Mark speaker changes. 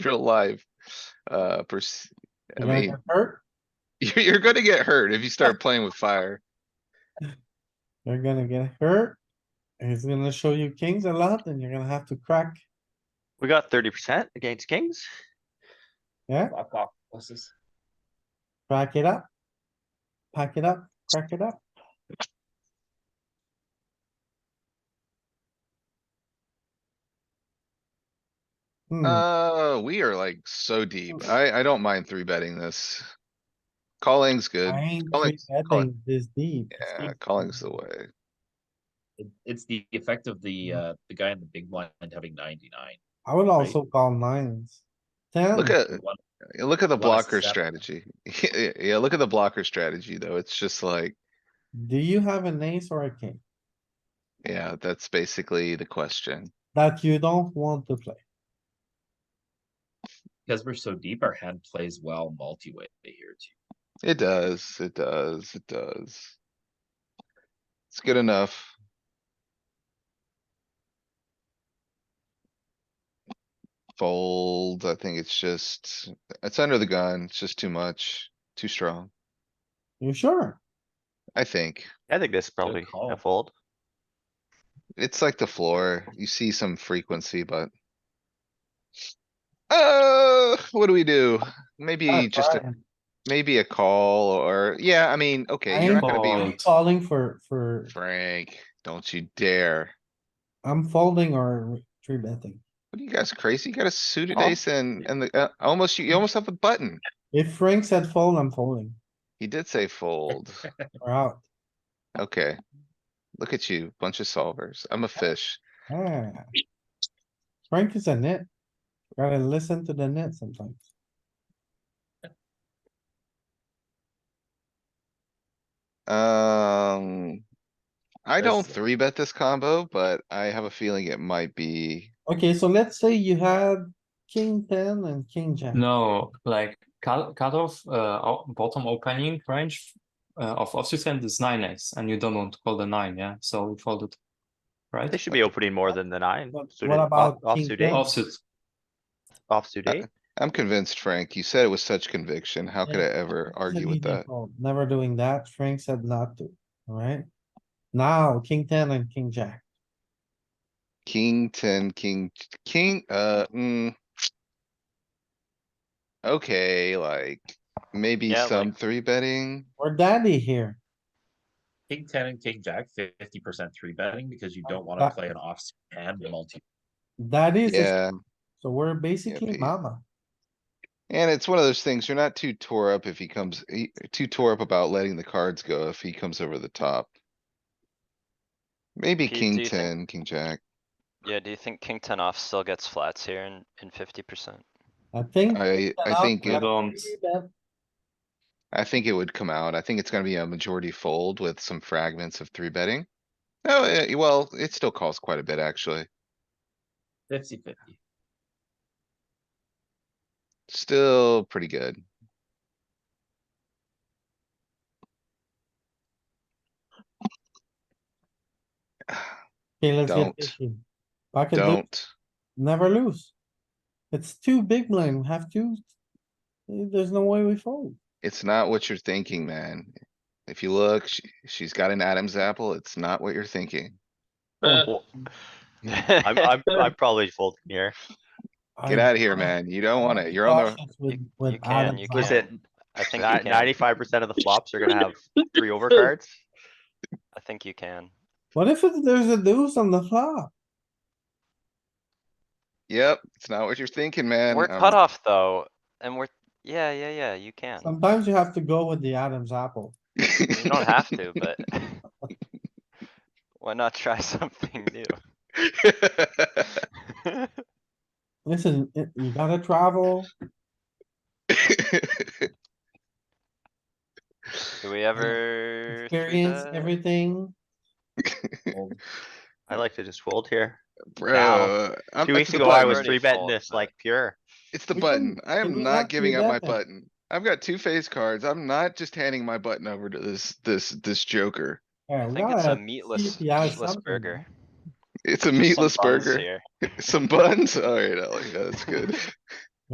Speaker 1: real life. Uh, pers- I
Speaker 2: You're gonna
Speaker 1: mean,
Speaker 2: get hurt,
Speaker 1: you're, you're gonna get hurt if you start playing with fire.
Speaker 2: you're gonna get hurt. He's gonna show you kings a lot and you're gonna have to crack.
Speaker 3: We got thirty percent against kings.
Speaker 4: Fuck off, horses.
Speaker 2: Crack it up. Pack it up, crack it up.
Speaker 4: Mm-hmm.
Speaker 2: Hmm,
Speaker 1: Uh, we are like so deep. I, I don't mind three betting this. Calling's good.
Speaker 2: I ain't
Speaker 1: calling-
Speaker 2: three
Speaker 1: calling.
Speaker 2: betting this deep. It's
Speaker 1: Yeah,
Speaker 2: deep.
Speaker 1: calling's the way.
Speaker 4: It- It's the effect of the, uh, the guy in the big blind having ninety-nine.
Speaker 2: I would also call nines. Ten,
Speaker 1: Look at,
Speaker 4: One-
Speaker 1: look at the
Speaker 4: Lost
Speaker 1: blocker
Speaker 4: seven.
Speaker 1: strategy. Yeah, Yeah, look at the blocker strategy though. It's just like,
Speaker 2: do you have an ace or a king
Speaker 1: yeah, that's basically the question.
Speaker 2: that you don't want to play?
Speaker 4: Because we're so deep, our hand plays well multi-way here too.
Speaker 1: It does, it does, it does. It's good enough. Fold, I think it's just, it's under the gun. It's just too much, too strong,
Speaker 2: You sure?
Speaker 1: I think.
Speaker 3: I think this is probably
Speaker 4: call.
Speaker 3: a fold.
Speaker 1: It's like the floor. You see some frequency, but. Uh, what do we do? Maybe
Speaker 2: Not
Speaker 1: just, a-
Speaker 2: Brian.
Speaker 1: maybe a call or, yeah, I mean, okay, you're
Speaker 2: I'm
Speaker 1: not gonna be
Speaker 3: Fold.
Speaker 2: Calling for, for,
Speaker 1: Frank, don't you dare.
Speaker 2: I'm folding or three betting.
Speaker 1: What are you guys crazy? You got a suited
Speaker 3: Oh.
Speaker 1: ace and, and the, uh, almost, you you almost have a button.
Speaker 2: If Frank said fold, I'm folding.
Speaker 1: He did say fold.
Speaker 2: We're out.
Speaker 1: Okay. Look at you, bunch of solvers. I'm a fish.
Speaker 2: Ah. Frank is a nit. Gotta listen to the net sometimes.
Speaker 1: Um. I don't
Speaker 4: Listen.
Speaker 1: three bet this combo, but I have a feeling it might be,
Speaker 2: Okay, so let's say you had king ten and king jack.
Speaker 5: No, like cut cutoff uh o- bottom opening range uh, of offsuit hand is nine X and you don't want to call the nine, yeah? So we fold it. Right?
Speaker 3: They should be opening more than the nine.
Speaker 2: But
Speaker 3: suited-
Speaker 2: what
Speaker 3: o-
Speaker 2: about king
Speaker 3: Offsuit
Speaker 2: jack?
Speaker 3: eight,
Speaker 5: Offsuit.
Speaker 3: offsuit eight.
Speaker 1: I'm convinced, Frank. You said it with such conviction. How could I
Speaker 2: Yeah.
Speaker 1: ever argue with
Speaker 2: Immediate
Speaker 1: that?
Speaker 2: fold. Never doing that. Frank said not to, alright? Now, king ten and king jack.
Speaker 1: King, ten, king, king, uh, mm. Okay, like, maybe
Speaker 3: Yeah, like-
Speaker 1: some three betting.
Speaker 2: We're daddy here.
Speaker 4: King ten and king jack, fifty percent three betting because you don't
Speaker 2: Uh,
Speaker 4: wanna play an offsuit hand multi.
Speaker 2: Daddy is, a-
Speaker 1: Yeah,
Speaker 2: so we're basically
Speaker 1: Pete.
Speaker 2: mama.
Speaker 1: and it's one of those things, you're not too tore up if he comes, y- too tore up about letting the cards go if he comes over the top. Maybe
Speaker 6: Pete, do
Speaker 1: king
Speaker 6: you think-
Speaker 1: ten, king jack.
Speaker 6: Yeah, do you think king ten off still gets flats here in, in fifty percent?
Speaker 2: I think.
Speaker 1: I, I
Speaker 2: allowed
Speaker 1: think,
Speaker 2: to
Speaker 5: You
Speaker 1: it-
Speaker 2: have
Speaker 5: don't.
Speaker 2: three bet.
Speaker 1: I think it would come out. I think it's gonna be a majority fold with some fragments of three betting. Oh, eh, well, it still calls quite a bit, actually.
Speaker 4: Fifty fifty.
Speaker 1: Still pretty good.
Speaker 2: Okay, let's get
Speaker 1: Don't.
Speaker 2: fifty. Pocket deuce,
Speaker 1: Don't.
Speaker 2: never lose. It's too big blind, we have to. There's no way we fold.
Speaker 1: It's not what you're thinking, man. If you look, she, she's got an Adam's apple. It's not what you're thinking.
Speaker 3: Well, I'm, I'm, I'm probably folding here.
Speaker 1: Get out of here, man. You don't want it. You're on the,
Speaker 2: With,
Speaker 6: You-
Speaker 2: with
Speaker 6: you can,
Speaker 2: Adam's
Speaker 6: you
Speaker 2: apple.
Speaker 6: can.
Speaker 3: Listen,
Speaker 6: I think you can,
Speaker 3: ninety-five percent of the flops are gonna have three overcards.
Speaker 6: I think you can.
Speaker 2: What if it- there's a deuce on the flop?
Speaker 1: yep, it's not what you're thinking, man.
Speaker 6: We're
Speaker 1: Um,
Speaker 6: cut off though, and we're, yeah, yeah, yeah, you can.
Speaker 2: Sometimes you have to go with the Adam's apple.
Speaker 6: You don't have to, but. Why not try something new?
Speaker 2: Listen, it- you gotta travel.
Speaker 6: Do we ever? three
Speaker 2: experience
Speaker 6: bet?
Speaker 2: everything.
Speaker 3: I like to just fold here.
Speaker 1: Bro. I'm-
Speaker 3: Two
Speaker 1: it's
Speaker 3: weeks
Speaker 1: the
Speaker 3: ago, I
Speaker 1: button.
Speaker 3: was
Speaker 6: already
Speaker 3: three betting
Speaker 6: fold,
Speaker 3: this
Speaker 6: but-
Speaker 3: like pure.
Speaker 1: It's the
Speaker 2: You
Speaker 1: button.
Speaker 2: can-
Speaker 1: I
Speaker 2: you
Speaker 1: am
Speaker 2: can
Speaker 1: not
Speaker 2: not do
Speaker 1: giving up my
Speaker 2: that.
Speaker 1: button. I've got two face cards. I'm not just handing my button over to this, this, this joker.
Speaker 2: Yeah,
Speaker 6: I
Speaker 2: we
Speaker 6: think it's a
Speaker 2: gotta
Speaker 6: meatless,
Speaker 2: if he has
Speaker 6: meatless
Speaker 2: something,
Speaker 6: burger.
Speaker 1: It's a
Speaker 6: There's some
Speaker 1: meatless
Speaker 6: buns
Speaker 1: burger.
Speaker 6: here.
Speaker 1: Some buns? Alright, Ellie, that's good.